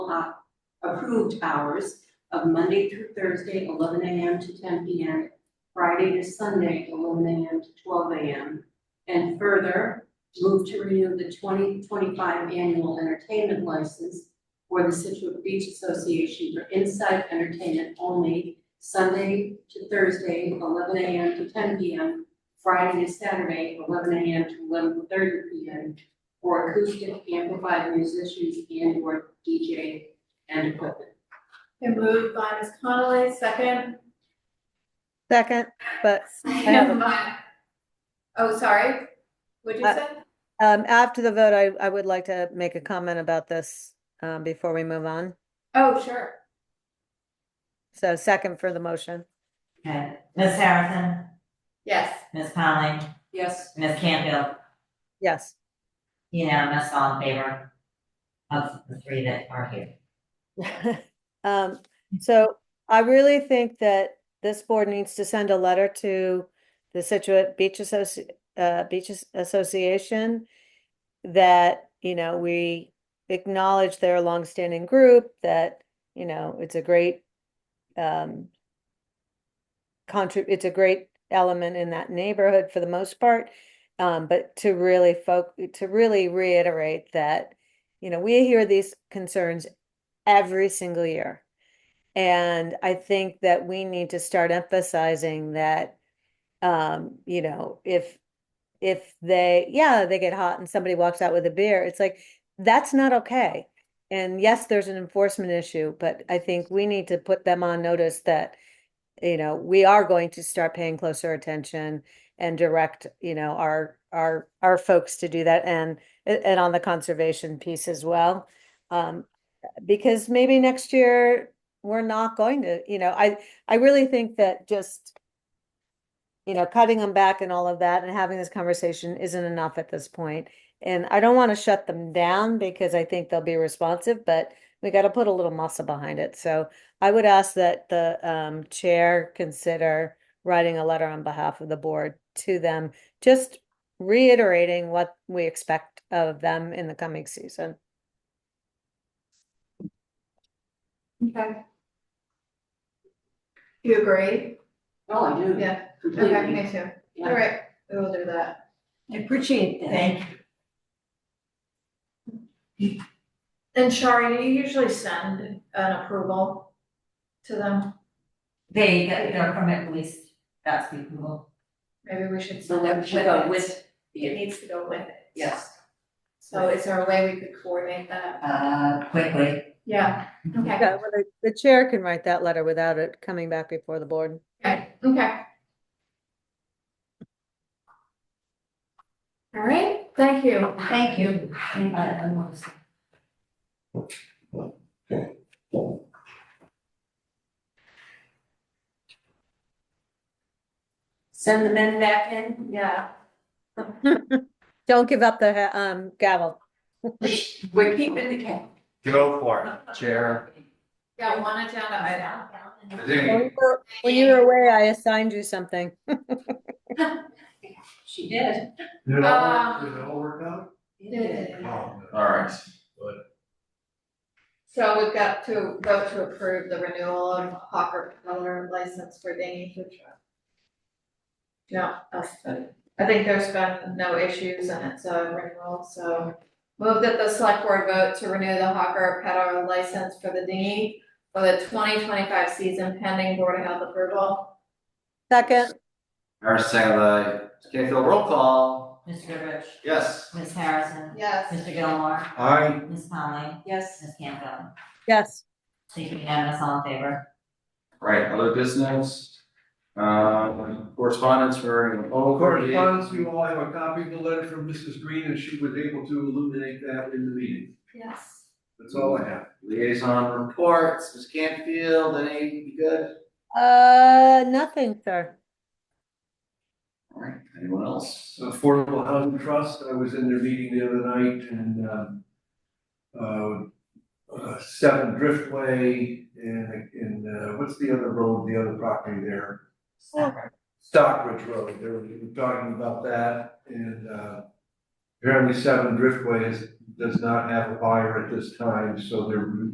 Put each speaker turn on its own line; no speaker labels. o- uh, approved hours of Monday through Thursday, eleven AM to ten PM, Friday to Sunday, eleven AM to twelve AM. And further, move to renew the twenty twenty-five annual entertainment license for the Situate Beach Association for inside entertainment only, Sunday to Thursday, eleven AM to ten PM, Friday to Saturday, eleven AM to eleven thirty PM, for acoustic amplified musicians and or DJ and equipment.
Been moved by Ms. Connolly, second.
Second, but have a-
Second by- Oh, sorry, what'd you
Uh,
say?
um, after the vote, I, I would like to make a comment about this um, before we move on.
Oh, sure.
So second for the motion.
Okay, Ms. Harrison,
Yes,
Ms. Conley,
Yes,
Ms. Campfield,
Yes,
unanimous, all in favor of the three that are here.
Um, so I really think that this board needs to send a letter to the Situate Beach Associ- uh, Beaches Association that, you know, we acknowledge their longstanding group, that, you know, it's a great um contrib- it's a great element in that neighborhood for the most part. Um, but to really folk, to really reiterate that, you know, we hear these concerns every single year. And I think that we need to start emphasizing that, um, you know, if, if they, yeah, they get hot and somebody walks out with a beer, it's like, that's not okay. And yes, there's an enforcement issue, but I think we need to put them on notice that, you know, we are going to start paying closer attention and direct, you know, our, our, our folks to do that and, and on the conservation piece as well. Um, because maybe next year we're not going to, you know, I, I really think that just, you know, cutting them back and all of that and having this conversation isn't enough at this point. And I don't want to shut them down because I think they'll be responsive, but we got to put a little muscle behind it. So I would ask that the um, chair consider writing a letter on behalf of the board to them, just reiterating what we expect of them in the coming season.
okay. You agree?
oh, I do,
Yeah, okay,
completely.
me too.
Yeah.
All right, we will do that.
I appreciate that.
Thank
And Shari, do you usually send an approval to them?
They, they're from at least, that's people.
Maybe we should
So
send it
that
with
should go
it.
with,
It
the
needs to go with it.
yes,
So is there a way we could coordinate that?
Uh, quickly.
Yeah, okay,
Yeah, well, the- the chair can write that letter without it coming back before the board.
okay, okay. All right, thank you.
Thank you. Thank
send the men back in,
Yeah,
Don't give up the ha- um gavel.
we're keeping the cat.
Go for it, Chair.
got one agenda item.
I
When
think-
you were- when you were away, I assigned you something.
She did.
Did it all work-
Um,
did it all work out? Oh,
All right,
So we've got to vote to approve the renewal of Hawker Peddler license for Danny Food Truck. No, that's good. I think there's been no issues and it's a renewal, so. Move that the select board vote to renew the Hawker Peddler license for the dinghy for the twenty twenty-five season pending board of health approval.
Second,
Harrison, second by Canfield, roll call,
Mr. Rich,
yes,
Ms. Harrison,
Yes,
Mr. Gilmore,
I,
Ms. Conley,
Yes,
Ms. Campfield.
yes,
Thank you, unanimous, all in favor.
right, other business. Um, correspondence, we're in
of course,
over.
funds, you all have a copy of the letter from Mrs. Green, and she was able to illuminate that in the meeting.
yes.
That's all I have.
Liaison reports, Ms. Canfield, any, you good?
uh, nothing, sir.
All right, anyone else?
Affordable Housing Trust, I was in their meeting the other night, and, um, uh, uh, Seven Driftway, and, and, uh, what's the other road, the other property there? Stockbridge Road, they were they were talking about that, and, uh, apparently Seven Driftway is, does not have a buyer at this time, so they're